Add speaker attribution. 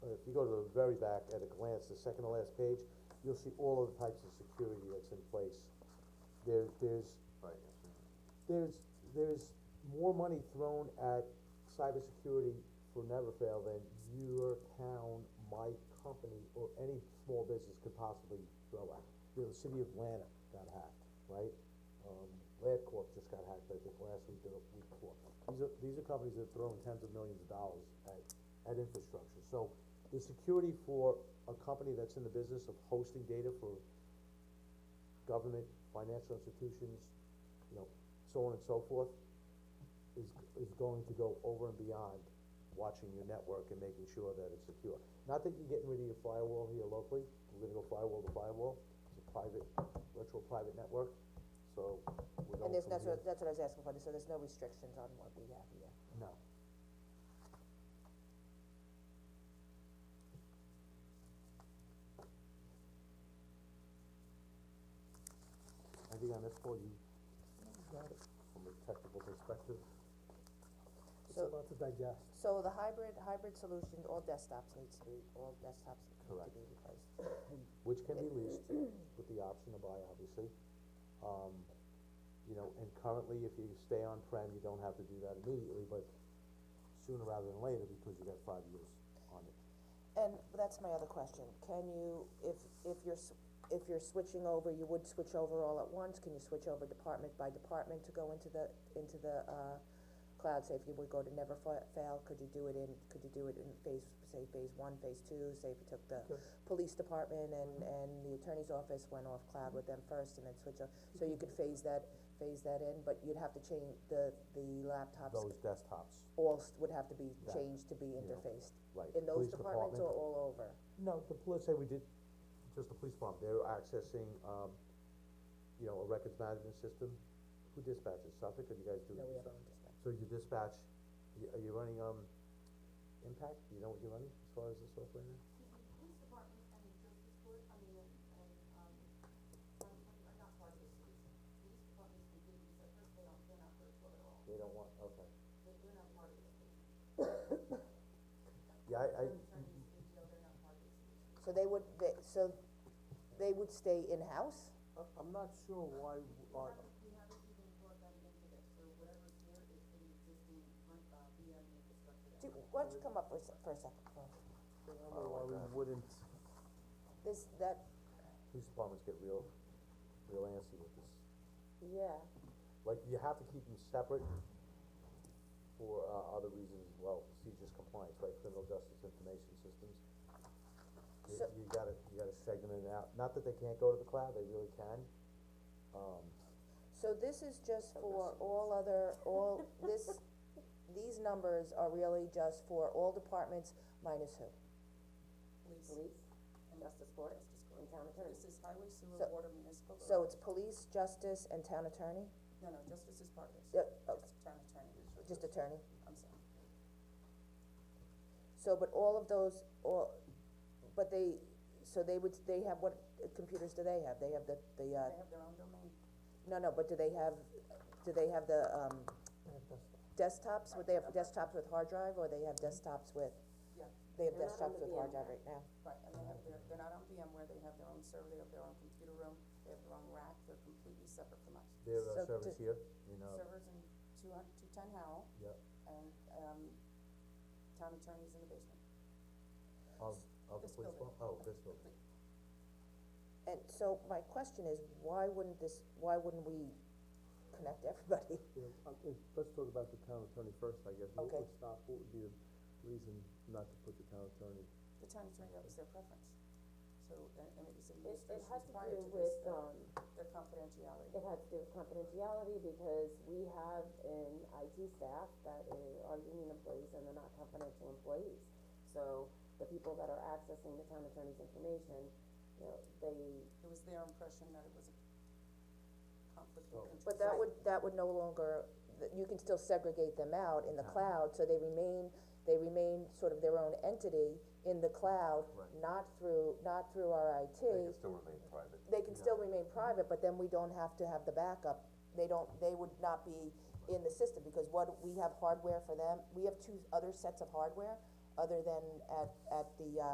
Speaker 1: you go to the very back at a glance, the second to last page, you'll see all of the types of security that's in place. There, there's,
Speaker 2: Right, yes, sir.
Speaker 1: there's, there's more money thrown at cybersecurity for never fail than your town, my company, or any small business could possibly throw at. You know, the city of Atlanta got hacked, right? Um, LabCorp just got hacked, I think, last week or the week before. These are, these are companies that are throwing tens of millions of dollars at, at infrastructure. So the security for a company that's in the business of hosting data for government, financial institutions, you know, so on and so forth, is, is going to go over and beyond watching your network and making sure that it's secure. Not that you're getting rid of your firewall here locally, we're gonna go firewall to firewall, it's a private, virtual private network, so we're going
Speaker 3: And there's,
Speaker 1: from
Speaker 3: that's what,
Speaker 1: here-
Speaker 3: that's what I was asking for, so there's no restrictions on what we have here.
Speaker 1: No. I think on this call, you got it from a technical perspective.
Speaker 3: It's a So-
Speaker 1: lot to digest.
Speaker 3: So the hybrid, hybrid solution, all desktops needs to be, all desktops need to
Speaker 1: Correct.
Speaker 3: be replaced.
Speaker 1: Which can be leased with the option to buy, obviously. Um, you know, and currently, if you stay on-prem, you don't have to do that immediately, but sooner rather than later, because you got five years on it.
Speaker 3: And that's my other question, can you, if, if you're, s- if you're switching over, you would switch over all at once, can you switch over department by department to go into the, into the, uh, cloud, say if you would go to never fa- fail, could you do it in, could you do it in phase, say phase one, phase two, say if you took the police department and, and the attorney's office went off cloud with them first and then switch over, so you could phase that, phase that in, but you'd have to change the, the laptops,
Speaker 1: Those desktops,
Speaker 3: all s- would have to be
Speaker 1: That,
Speaker 3: changed to be
Speaker 1: know,
Speaker 3: interfaced.
Speaker 1: right.
Speaker 3: In those
Speaker 1: Police
Speaker 3: departments
Speaker 1: department.
Speaker 3: or all over?
Speaker 1: No, the, let's say we did, just the police department, they're accessing, um, you know, a records management system. Who dispatches, Suffolk, or do you guys do?
Speaker 3: No, we have our own dispatch.
Speaker 1: So you dispatch, you, are you running, um, Impact, you know what you're running as far as the software now?
Speaker 4: police department and the justice court, I mean, and, um, I'm not part of the city, police department is completely separate, they don't, they're not virtual at all,
Speaker 1: They don't want, okay.
Speaker 4: they're, they're not part of the city.
Speaker 1: Yeah, I, I,
Speaker 4: Attorneys, ATO, they're not part of the city.
Speaker 3: So they would, they, so they would stay in-house?
Speaker 5: I- I'm not sure why, uh, w- our-
Speaker 4: We haven't even brought that into this, so whatever's there is in existing, uh, VM infrastructure.
Speaker 3: Do, why don't you come up for a sec, for a second, Paul?
Speaker 5: I don't know why we wouldn't,
Speaker 3: This, that,
Speaker 1: police departments get real, real antsy with this.
Speaker 3: yeah,
Speaker 1: Like, you have to keep them separate for, uh, other reasons as well, procedures compliance, right, criminal justice information systems. You,
Speaker 3: So-
Speaker 1: you gotta, you gotta segment it out, not that they can't go to the cloud, they really can. Um,
Speaker 3: so this is just for all other, all, this, these numbers are really just for all departments minus who?
Speaker 6: Police, and justice court, and town attorney. This is highway, sewer,
Speaker 3: So-
Speaker 6: water, municipal.
Speaker 3: So it's police, justice, and town attorney,
Speaker 6: No, no, justice is part of this.
Speaker 3: Yeah, oh.
Speaker 6: Just town attorney,
Speaker 3: just attorney,
Speaker 6: I'm sorry.
Speaker 3: so, but all of those, all, but they, so they would, they have what uh, computers do they have? They have the, the, uh,
Speaker 6: They have their own domain.
Speaker 3: No, no, but do they have, do they have the, um, desktops, would they have desktops with hard drive, or they have desktops with,
Speaker 6: Yeah.
Speaker 3: they have
Speaker 6: They're not on
Speaker 3: desktops
Speaker 6: the
Speaker 3: with hard
Speaker 6: VMware.
Speaker 3: drive right now?
Speaker 6: Right, and they have their, they're not on VMware, they have their own server, they have their own computer room, they have their own rack, they're completely separate from us.
Speaker 1: their uh,
Speaker 3: So
Speaker 1: service
Speaker 3: to-
Speaker 1: here, you know,
Speaker 6: Servers in two hun- two ten Howell,
Speaker 1: yeah,
Speaker 6: and, um, town attorney's in the basement.
Speaker 1: of, of the
Speaker 6: This
Speaker 1: police
Speaker 6: building.
Speaker 1: department, oh, this building.
Speaker 3: And so my question is, why wouldn't this, why wouldn't we connect everybody?
Speaker 5: you know, uh, it- let's talk about the town attorney first, I guess. What
Speaker 3: Okay.
Speaker 5: would stop, what would be the reason not to put the town attorney?
Speaker 6: The town attorney, that was their preference. So, and, and it was
Speaker 7: It, it had
Speaker 6: administration's
Speaker 7: to
Speaker 6: prior
Speaker 7: do
Speaker 6: to this, uh,
Speaker 7: with, um,
Speaker 6: their confidentiality.
Speaker 7: it had to do with confidentiality because we have an IT staff that i- are union employees and they're not confidential employees. So the people that are accessing the town attorney's information, you know, they,
Speaker 6: It was their impression that it was a conflict of interest.
Speaker 3: But that would, that would no longer, that you can still segregate them out in the cloud, so they remain, they remain sort of their own entity in the cloud, not through, not through our IT.
Speaker 2: still remain private.
Speaker 3: they can still remain private, but then we don't have to have the backup, they don't, they would not be in the system, because what, we have hardware for them, we have two other sets of hardware, other than at, at the, uh,